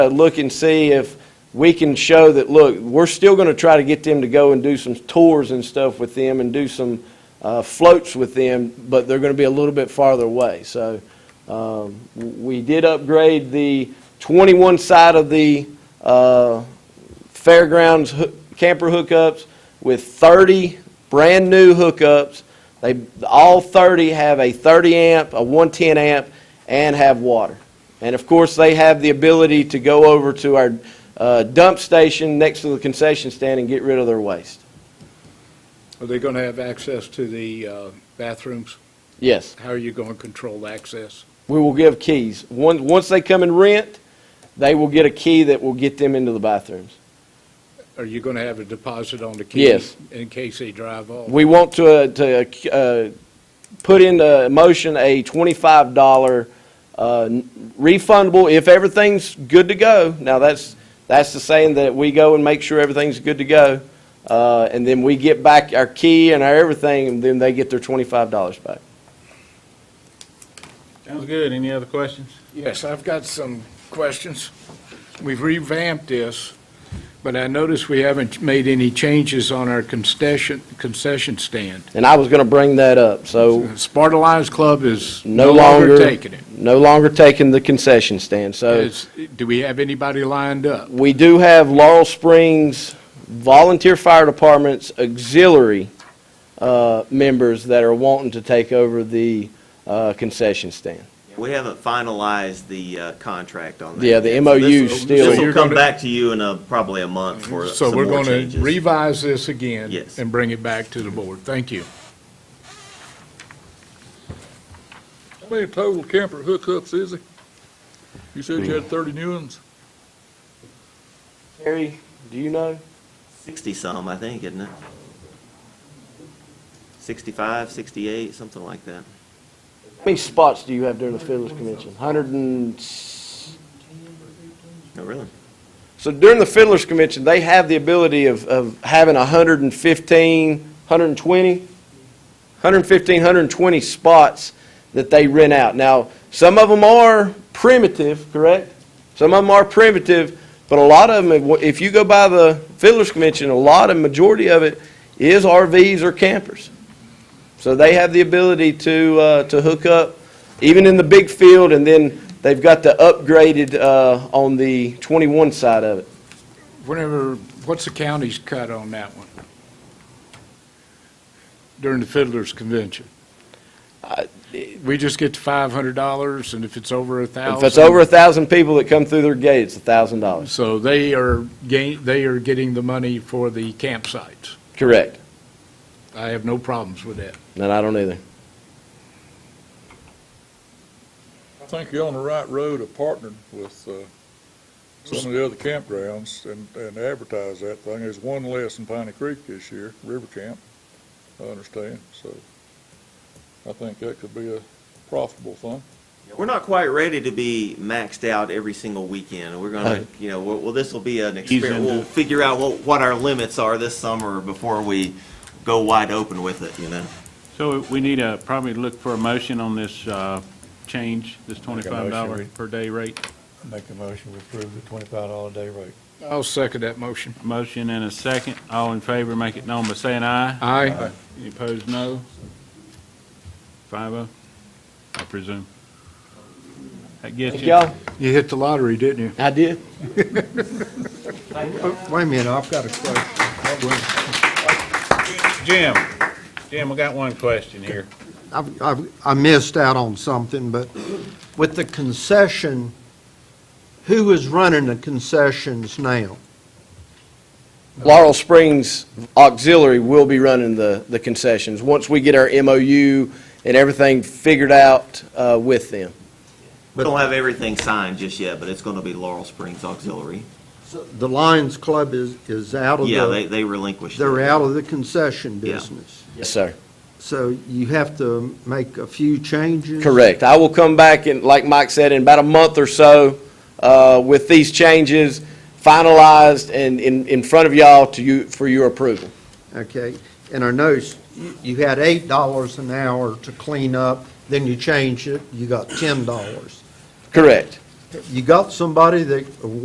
uh, look and see if we can show that, look, we're still going to try to get them to go and do some tours and stuff with them and do some uh, floats with them, but they're going to be a little bit farther away. So um, w- we did upgrade the 21 side of the uh, fairgrounds hoo- camper hookups with 30 brand-new hookups. They, all 30 have a 30 amp, a 110 amp, and have water. And of course, they have the ability to go over to our uh, dump station next to the concession stand and get rid of their waste. Are they going to have access to the uh, bathrooms? Yes, How are you going to control access? we will give keys. Once, once they come and rent, they will get a key that will get them into the bathrooms. Are you going to have a deposit on the key? Yes. In case they drive off? We want to, uh, to uh, put into motion a $25 uh, refundable, if everything's good to go. Now, that's, that's the saying that we go and make sure everything's good to go, uh, and then we get back our key and our everything, and then they get their $25 back. Sounds good. Any other questions? Yes, I've got some questions. We've revamped this, but I notice we haven't made any changes on our concession, concession stand. And I was going to bring that up, so Sparta Lions Club is no longer. taking it. No longer taking the concession stand, so. Is- Do we have anybody lined up? We do have Laurel Springs Volunteer Fire Department's auxiliary uh, members that are wanting to take over the uh, concession stand. We haven't finalized the uh, contract on that. Yeah, the yet, MOU so this will- still- This So will you're come gonna- Mhm. back to you in a- probably a month for So some we're more going to changes. revise this again. Yes. And bring it back to the board. Thank you. How many total camper hookups is it? You said you had thirty new ones? Terry, do you know? Sixty-some, I think, isn't it? Sixty-five, sixty-eight, something like that. How many spots do you have during the Fiddlers Convention? Hundred and, s- Oh, really? so during the Fiddlers Convention, they have the ability of, of having a hundred and fifteen, hundred and twenty? 115, 120 spots that they rent out. Now, some of them are primitive, correct? Some of them are primitive, but a lot of them, if you go by the Fiddler's Convention, a lot of, majority of it is RVs or campers. So they have the ability to, uh, to hook up, even in the big field, and then they've got the upgraded, uh, on the 21 side of it. Whenever, what's the county's cut on that one? During the Fiddlers Convention? I- We just get to five hundred dollars, and if it's over a thousand? If it's over a 1,000 people that come through their gate, it's $1,000. So they are gain, they are getting the money for the campsites. Correct. I have no problems with that. And I don't either. I think you're on the right road of partnering with, uh, some of the other campgrounds and, and advertise that thing. There's one less in Piney Creek this year, River Camp, I understand, so I think that could be a profitable thing. We're not quite ready to be maxed out every single weekend. We're gonna, Right. you know, well, well, this will be an Ease experiment. into We'll it. figure out what, what our limits are this summer before we go wide open with it, you know? So we need a, probably look for a motion on this uh, change, this $25 per day rate. Make a motion, we approve the twenty-five dollar day rate. I'll second that motion. Motion and a second. All in favor, make it known by saying aye. Aye. Any opposed, no? Five oh, I presume. That gets Thank you. y'all. You hit the lottery, didn't you? I did. Wait a minute, I've got a question. Jim, Jim, I got one question here. I've- I've- I missed out on something, but with the concession, who is running the concessions now? Laurel Springs Auxiliary will be running the, the concessions, once we get our MOU and everything figured out uh, with them. We don't have everything signed just yet, but it's gonna be Laurel Springs Auxiliary. The Lions Club is, is out of Yeah, they, the, they relinquished. it. they're out of the concession Yeah. business. Yes, sir. So you have to make a few changes? Correct. I will come back and, like Mike said, in about a month or so uh, with these changes finalized and in, in front of y'all to you, for your approval. Okay, and I noticed you- you had eight dollars an hour to clean up, then you changed it, you got ten dollars. Correct. You got somebody that,